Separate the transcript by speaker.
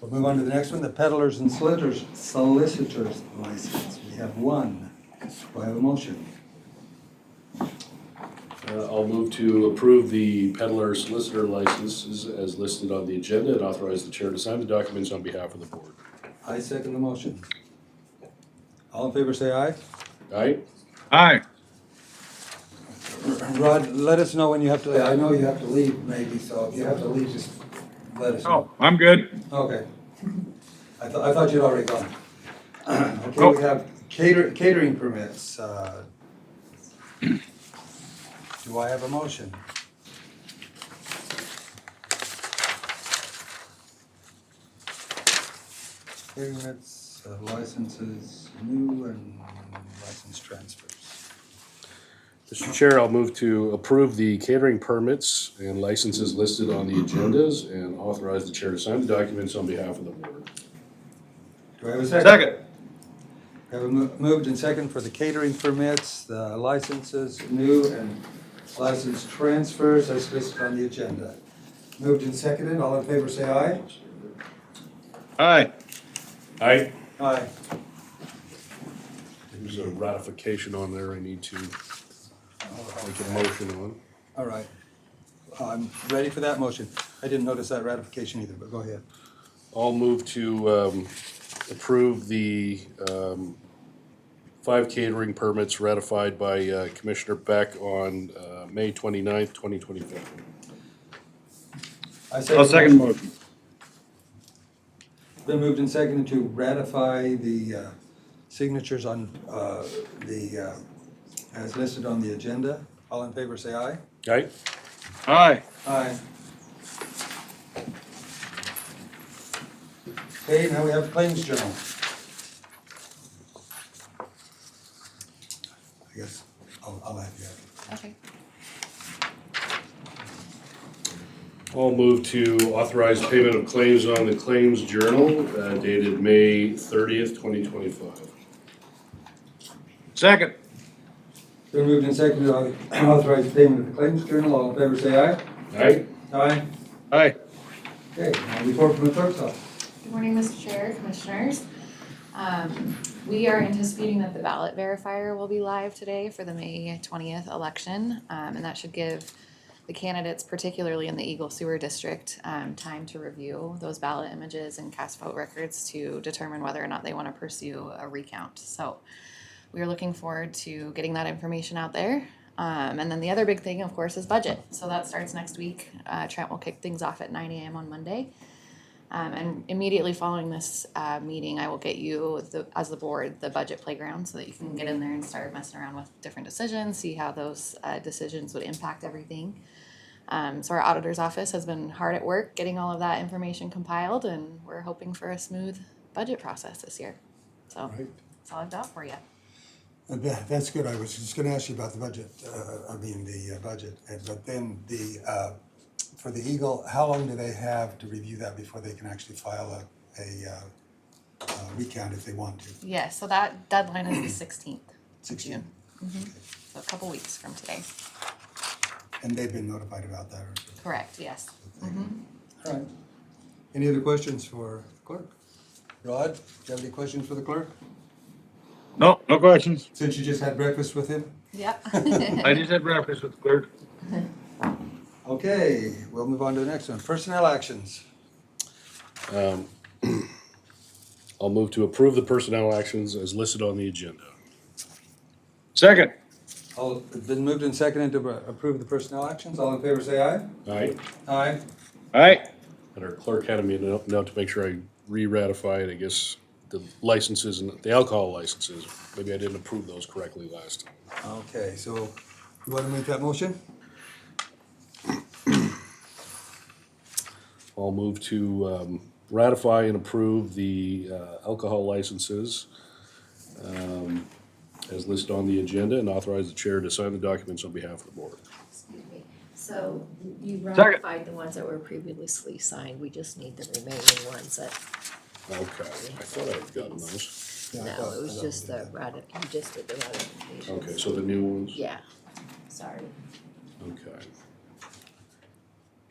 Speaker 1: We'll move on to the next one, the peddlers and solicitors, solicitors license. We have one. Do I have a motion?
Speaker 2: Uh, I'll move to approve the peddler solicitor licenses as listed on the agenda and authorize the chair to sign the documents on behalf of the board.
Speaker 1: I second the motion. All in favor, say aye.
Speaker 2: All right?
Speaker 3: Aye.
Speaker 1: Rod, let us know when you have to, I know you have to leave maybe, so if you have to leave, just let us know.
Speaker 3: Oh, I'm good.
Speaker 1: Okay. I thought, I thought you'd already gone. Okay,
Speaker 3: Nope.
Speaker 1: we have cater, catering permits. uh, Do I have a motion? Catering permits, uh, licenses, new and license transfers.
Speaker 2: Mr. Chair, I'll move to approve the catering permits and licenses listed on the agendas and authorize the chair to sign the documents on behalf of the board.
Speaker 1: Do I have a second?
Speaker 3: Second.
Speaker 1: We Have a mo- moved and second for the catering permits, the licenses, new and license transfers as listed on the agenda. Moved and seconded, all in favor say aye.
Speaker 3: Aye.
Speaker 2: Aye.
Speaker 1: Aye.
Speaker 2: There's a ratification on there I need to make a motion on.
Speaker 1: All right. I'm ready for that motion. I didn't notice that ratification either, but go ahead.
Speaker 2: I'll move to um, approve the um, five catering permits ratified by uh, Commissioner Beck on uh, May 29th, 2024.
Speaker 1: I
Speaker 3: I'll
Speaker 1: motion.
Speaker 3: second motion.
Speaker 1: Been moved and seconded to ratify the uh, signatures on uh, the, uh, as listed on the agenda. All in favor say aye.
Speaker 2: Right?
Speaker 3: Aye.
Speaker 1: Aye. Okay, now we have claims journal. I guess I'll, I'll have you.
Speaker 4: Okay.
Speaker 2: I'll move to authorize payment of claims on the Claims Journal uh, dated May 30th, 2025.
Speaker 3: Second.
Speaker 1: Been moved and seconded, au- authorize payment of the claims journal, all in favor say aye.
Speaker 2: Right?
Speaker 1: Aye.
Speaker 3: Aye.
Speaker 1: Okay, now report from the clerk's office.
Speaker 4: Good morning, Mr. Chair, Commissioners. Um, we are anticipating that the ballot verifier will be live today for the May twentieth election. Um, and that should give the candidates, particularly in the Eagle Sewer District, um, time to review those ballot images and cast vote records to determine whether or not they want to pursue a recount. So we are looking forward to getting that information out there. Um, and then the other big thing, of course, is budget. So that starts next week. Uh, Trent will kick things off at nine AM on Monday. Um, and immediately following this uh, meeting, I will get you, the, as the board, the budget playground so that you can get in there and start messing around with different decisions, see how those uh, decisions would impact everything. Um, so, our auditor's office has been hard at work getting all of that information compiled, and we're hoping for a smooth budget process this year. So, that's all I've got for you.
Speaker 5: Uh, That, that's good. I was just gonna ask you about the budget, uh, I mean, the uh, budget, and- but then the, uh, for the Eagle, how long do they have to review that before they can actually file a, a, uh, uh, recount if they want to?
Speaker 4: Yeah, so that deadline is the 16th. of
Speaker 5: 16th.
Speaker 4: June. Mhm. So, a couple weeks from today.
Speaker 5: And they've been notified about that, or?
Speaker 4: Correct, yes.
Speaker 1: All right. Any other questions for the clerk? Rod, do you have any questions for the clerk?
Speaker 3: No, no questions.
Speaker 1: Since you just had breakfast with him?
Speaker 4: Yep.
Speaker 3: I just had breakfast with the clerk.
Speaker 1: Okay, we'll move on to the next one. Personnel actions.
Speaker 2: I'll move to approve the personnel actions as listed on the agenda.
Speaker 3: Second.
Speaker 1: All, it's been moved and seconded to approve the personnel actions. All in favor, say aye.
Speaker 2: All right?
Speaker 1: Aye.
Speaker 3: Aye.
Speaker 2: And our clerk had me note note to make sure I re-ratify it, I guess, the licenses and the alcohol licenses. Maybe I didn't approve those correctly last time.
Speaker 1: Okay, so you want to make that motion?
Speaker 2: I'll move to um, ratify and approve the uh, alcohol licenses um, as listed on the agenda and authorize the chair to sign the documents on behalf of the board.
Speaker 6: Excuse me. So you
Speaker 3: Second.
Speaker 6: ratified the ones that were previously signed, we just need the remaining ones that,
Speaker 2: Okay, I thought I'd gotten those.
Speaker 5: Yeah, I
Speaker 6: no,
Speaker 5: thought-
Speaker 6: it
Speaker 5: I
Speaker 6: was
Speaker 5: thought
Speaker 6: just
Speaker 5: we did
Speaker 6: the rati, you just did the ratification.
Speaker 2: Okay, so the new ones?
Speaker 6: Yeah, sorry.
Speaker 2: Okay.